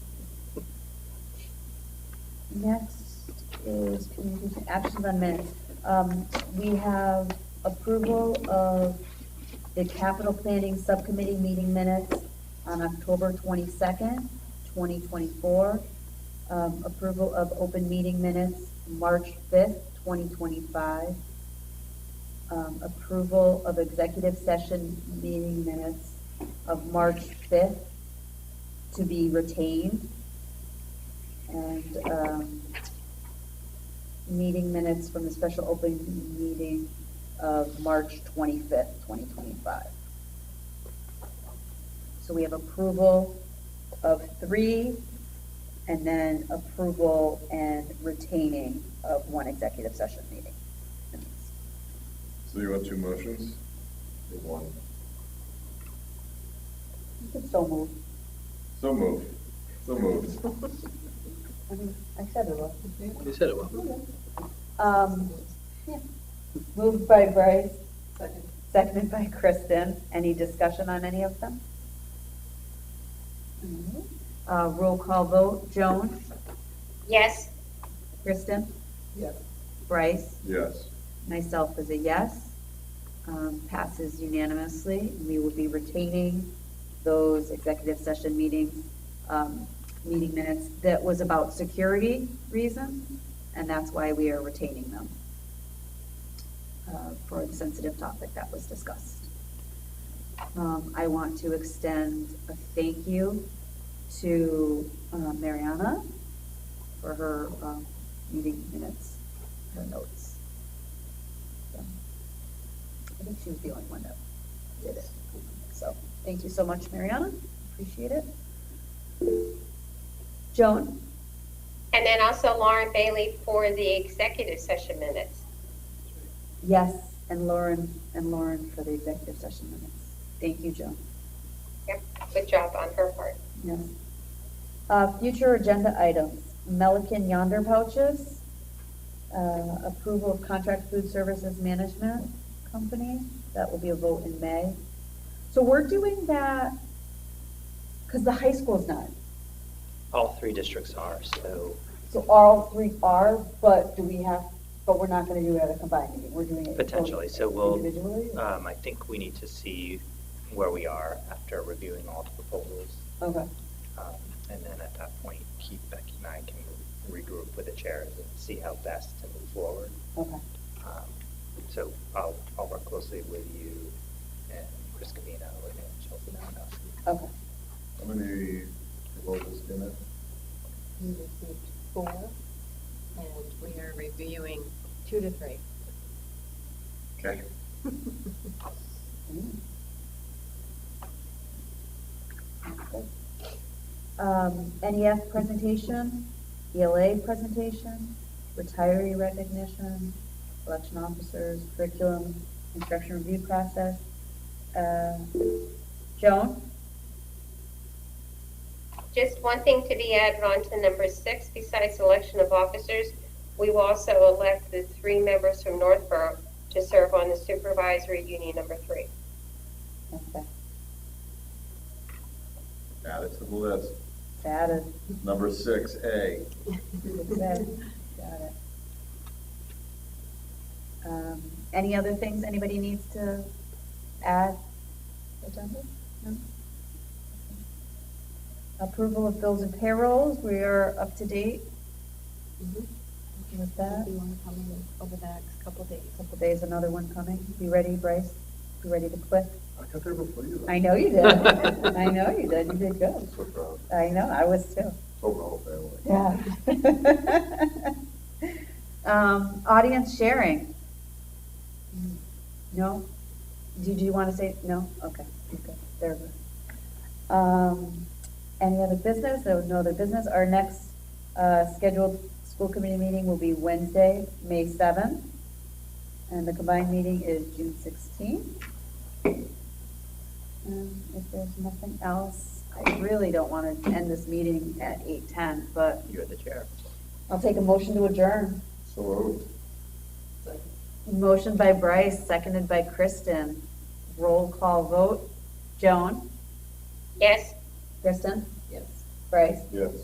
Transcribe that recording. Next is communication, actions on minutes. Um, we have approval of the capital planning subcommittee meeting minutes on October twenty-second, twenty twenty-four. Um, approval of open meeting minutes, March fifth, twenty twenty-five. Um, approval of executive session meeting minutes of March fifth to be retained. And, um, meeting minutes from the special open meeting of March twenty-fifth, twenty twenty-five. So we have approval of three, and then approval and retaining of one executive session meeting. So you want two motions? Or one? You can so move. So moved. So moved. I mean, I said it was. You said it well. Um, yeah. Moved by Bryce. Seconded by Kristen. Any discussion on any of them? Uh, roll call vote. Joan? Yes. Kristen? Yes. Bryce? Yes. Myself is a yes. Um, passes unanimously. And We will be retaining those executive session meetings, um, meeting minutes that was about security reasons, and that's why we are retaining them uh, for the sensitive topic that was discussed. Um, I want to extend a thank you to uh, Mariana for her um, meeting minutes, her notes. So, I think she was the only one that did it. So, thank you so much, Mariana. Appreciate it. Joan, And then also Lauren Bailey for the executive session minutes. yes, and Lauren, and Lauren for the executive session minutes. Thank you, Joan. Yep, good job on her part. Yes. Uh, future agenda items, Melican Yonder pouches, uh, approval of contract food services management company, that will be a vote in May. So we're doing that, because the high school's not, All three districts are, so so all three are, but do we have, but we're not gonna do it at a combined meeting, we're doing it. potentially, so we'll, Individually? um, I think we need to see where we are after reviewing all the proposals. Okay, Um, And then at that point, Keith, Becky, and I can regroup with the chairs and see how best to move forward. okay, Um, So I'll, I'll work closely with you and Chris Covino and Chelsea Malinowski. okay. How many proposals came in? We received four, and we are reviewing two to three. Okay. Mm. Sounds good. Um, NEF presentation, ELA presentation, retiree recognition, election officers, curriculum, instruction review process. Uh, Joan? Just one thing to be added on to number six, besides election of officers, we will also elect the three members from Northborough to serve on the supervisory union number three. Okay, Add it to the list. That is, Number six, A. that is, got it. Um, Any other things anybody needs to add? Agenda? No? Approval of bills and payrolls, we are up to date Mm-hmm. with that. If you want to come in over the next couple of days. Couple days, another one coming. You ready, Bryce? You ready to quit? I got there before you. I know you did. I know you did. You did I'm good. so proud. I know, I was too. So the whole family. Yeah. Um, audience sharing. No? Do, do you want to say, no? Okay, okay, there we go. Um, any other business? There was no other business. Our next, uh, scheduled school committee meeting will be Wednesday, May seventh. And the combined meeting is June sixteenth. Um, if there's nothing else, I really don't want to end this meeting at eight-ten, but You're the chair. I'll take a motion to adjourn. So moved. Motion by Bryce, seconded by Kristen. Roll call vote. Joan? Yes? Kristen? Yes. Bryce? Yes.